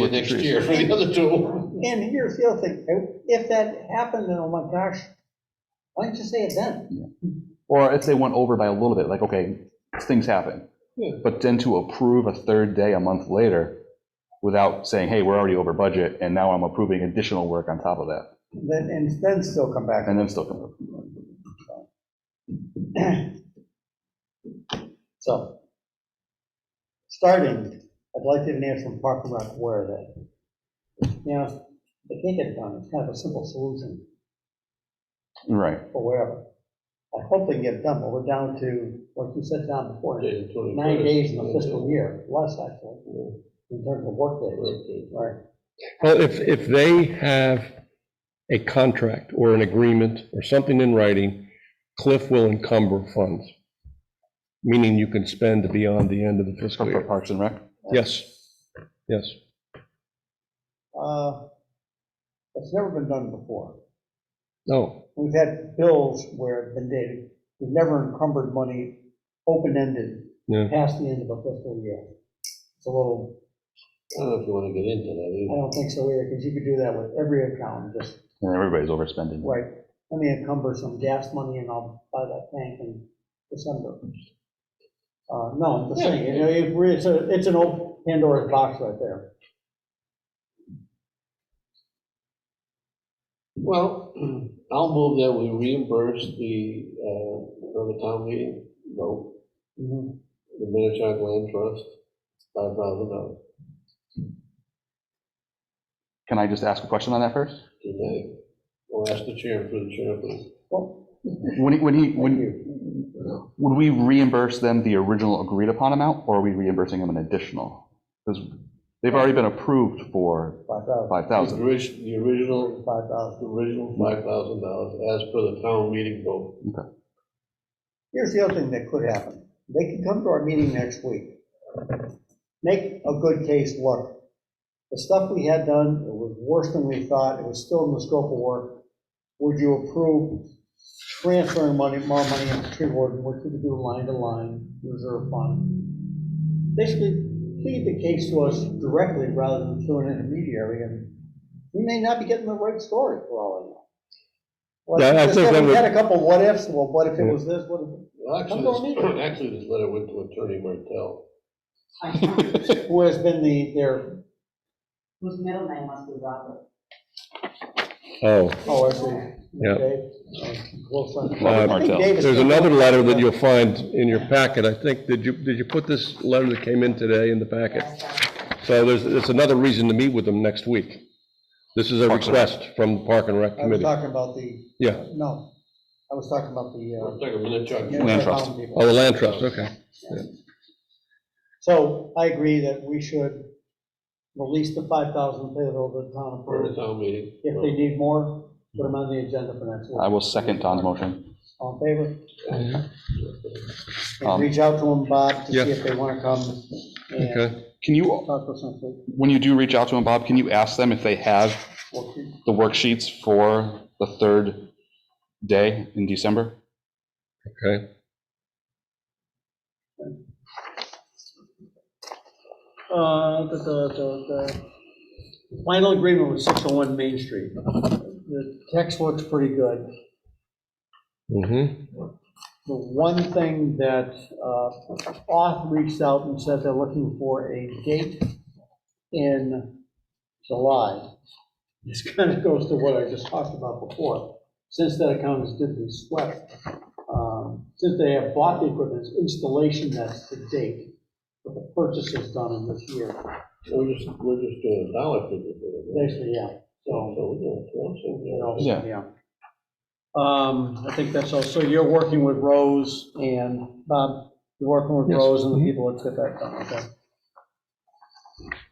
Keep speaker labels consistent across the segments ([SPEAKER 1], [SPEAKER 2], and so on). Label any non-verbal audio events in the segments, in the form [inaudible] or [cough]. [SPEAKER 1] you next year for the other two.
[SPEAKER 2] And here's the other thing, if that happened, then, oh my gosh, why didn't you say it then?
[SPEAKER 3] Or if they went over by a little bit, like, okay, things happen.
[SPEAKER 2] Yeah.
[SPEAKER 3] But then to approve a third day a month later without saying, hey, we're already over budget, and now I'm approving additional work on top of that,
[SPEAKER 2] Then, and then still come back.
[SPEAKER 3] and then still come.
[SPEAKER 2] [clears throat] So, starting, I'd like to hear from Park and Rec where that, you know, they can't get it done, it's kind of a simple solution
[SPEAKER 3] Right.
[SPEAKER 2] for wherever. I hope they can get it done, but we're down to, like you said down before,
[SPEAKER 1] Yeah, the 21st.
[SPEAKER 2] nine days in the fiscal year, less actually, in terms of workdays, right?
[SPEAKER 4] Well, if, if they have a contract or an agreement or something in writing, Cliff will encumber funds, meaning you can spend beyond the end of the fiscal
[SPEAKER 3] For
[SPEAKER 2] [laughs]
[SPEAKER 4] year.
[SPEAKER 3] Parks and Rec?
[SPEAKER 4] Yes, yes.
[SPEAKER 2] Uh, It's never been done before.
[SPEAKER 4] No,
[SPEAKER 2] We've had bills where it's been dated, we've never encumbered money open-ended
[SPEAKER 4] Yeah.
[SPEAKER 2] past the end of a fiscal year. It's a little,
[SPEAKER 1] I don't know if you want to get into that
[SPEAKER 2] I
[SPEAKER 1] either.
[SPEAKER 2] don't think so either, because you could do that with every account, just,
[SPEAKER 3] And everybody's overspending.
[SPEAKER 2] right, let me encumber some gas money and I'll buy that tank in December. Uh, No, I'm just saying, you know, it- it's a, it's an old Pandora's box right there.
[SPEAKER 1] Well, [clears throat] I'll move that we reimburse the, uh, for the town meeting, vote,
[SPEAKER 2] Mhm.
[SPEAKER 1] the Minichog Land Trust, five thousand dollars.
[SPEAKER 3] Can I just ask a question on that first?
[SPEAKER 1] today. We'll ask the chair for the chair, please.
[SPEAKER 2] Well,
[SPEAKER 3] When he, when he,
[SPEAKER 2] thank
[SPEAKER 3] when,
[SPEAKER 2] you.
[SPEAKER 3] would we reimburse them the original agreed upon amount, or are we reimbursing them an additional? Because they've already been approved for
[SPEAKER 2] Five thousand,
[SPEAKER 3] five
[SPEAKER 1] The
[SPEAKER 3] thousand.
[SPEAKER 1] orig- The original,
[SPEAKER 2] five thousand.
[SPEAKER 1] the original five thousand dollars as per the town meeting vote.
[SPEAKER 2] Here's the other thing that could happen. They can come to our meeting next week. Make a good case look. The stuff we had done, it was worse than we thought. It was still in the scope of work. Would you approve transferring money, more money into tree warden, what could we do line to line, reserve fund? Basically, plead the case to us directly rather than through an intermediary, and we may not be getting the right story for all of that. Well,
[SPEAKER 4] Yeah, I
[SPEAKER 2] just
[SPEAKER 4] think
[SPEAKER 2] said
[SPEAKER 4] that
[SPEAKER 2] We
[SPEAKER 4] would-
[SPEAKER 2] had a couple what ifs, well, what if it was this, what if?
[SPEAKER 1] Well,
[SPEAKER 2] Come to our
[SPEAKER 1] Actually,
[SPEAKER 2] meeting.
[SPEAKER 1] this- [clears throat] actually, this letter went to Attorney Martell.
[SPEAKER 2] who has been the, their,
[SPEAKER 5] Whose middle name must be Robert.
[SPEAKER 4] oh,
[SPEAKER 2] oh, I see.
[SPEAKER 4] yeah.
[SPEAKER 2] Dave, uh, close friend.
[SPEAKER 3] Robert
[SPEAKER 2] I think
[SPEAKER 3] Martell.
[SPEAKER 2] Dave is-
[SPEAKER 4] There's another letter that you'll find in your packet, I think. Did you, did you put this letter that came in today in the packet? So there's, it's another reason to meet with them next week. This is a
[SPEAKER 3] Parks and Rec.
[SPEAKER 4] request from the Park and Rec
[SPEAKER 2] I was
[SPEAKER 4] Committee.
[SPEAKER 2] talking about the,
[SPEAKER 4] Yeah,
[SPEAKER 2] no, I was talking about
[SPEAKER 1] We're
[SPEAKER 2] the.
[SPEAKER 1] talking Minichog.
[SPEAKER 2] uh,
[SPEAKER 3] Land trust.
[SPEAKER 2] people.
[SPEAKER 4] oh, the land trust, okay.
[SPEAKER 2] So I agree that we should release the five thousand payable to the town
[SPEAKER 1] For the
[SPEAKER 2] approved.
[SPEAKER 1] town meeting.
[SPEAKER 2] If they need more, put them on the agenda for next
[SPEAKER 3] I
[SPEAKER 2] week.
[SPEAKER 3] will second Don's motion.
[SPEAKER 2] All in favor?
[SPEAKER 3] Um,
[SPEAKER 2] And reach out to them, Bob, to see
[SPEAKER 4] Yeah.
[SPEAKER 2] if they want to come and
[SPEAKER 4] Okay,
[SPEAKER 3] Can you,
[SPEAKER 2] talk to us next week.
[SPEAKER 3] when you do reach out to them, Bob, can you ask them if they have
[SPEAKER 2] We'll keep-
[SPEAKER 3] the worksheets for the third day in December?
[SPEAKER 4] okay.
[SPEAKER 2] Uh, the, the, the, the final agreement was 601 Main Street. The text looks pretty good.
[SPEAKER 4] Mm-hmm,
[SPEAKER 2] The one thing that, uh, Oth reached out and said they're looking for a date in July. This kind of goes to what I just talked about before, since that account is digitally swept. um, Since they have bought the equipment, it's installation, that's the date, but the purchase is done in this year.
[SPEAKER 1] We're just, we're just doing a dollar figure for the
[SPEAKER 2] Basically, yeah, so,
[SPEAKER 1] So we're doing close in
[SPEAKER 2] you
[SPEAKER 1] there.
[SPEAKER 2] know,
[SPEAKER 3] Yeah.
[SPEAKER 2] yeah. Um, I think that's all, so you're working with Rose and, Bob, you're working with
[SPEAKER 4] Yes.
[SPEAKER 2] Rose and the people that get that done, okay?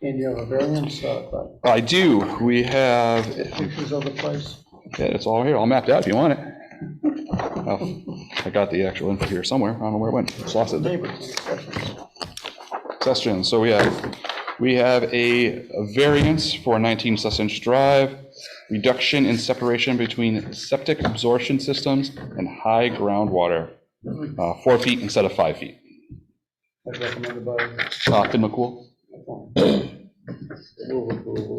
[SPEAKER 2] And you have a variance, uh, but
[SPEAKER 3] I do. We have,
[SPEAKER 2] pictures of the place,
[SPEAKER 3] yeah, it's all here, all mapped out if you want it. Oh, I got the actual info here somewhere. I don't know where it went. It's lost it.
[SPEAKER 2] neighbors, and discussions.
[SPEAKER 3] Session. So we have, we have a a variance for 19 Sessions Drive, reduction in separation between septic absorption systems and high groundwater, uh, four feet instead of five feet.
[SPEAKER 2] as recommended by,
[SPEAKER 3] Uh, Finn McCool?
[SPEAKER 1] Move approval.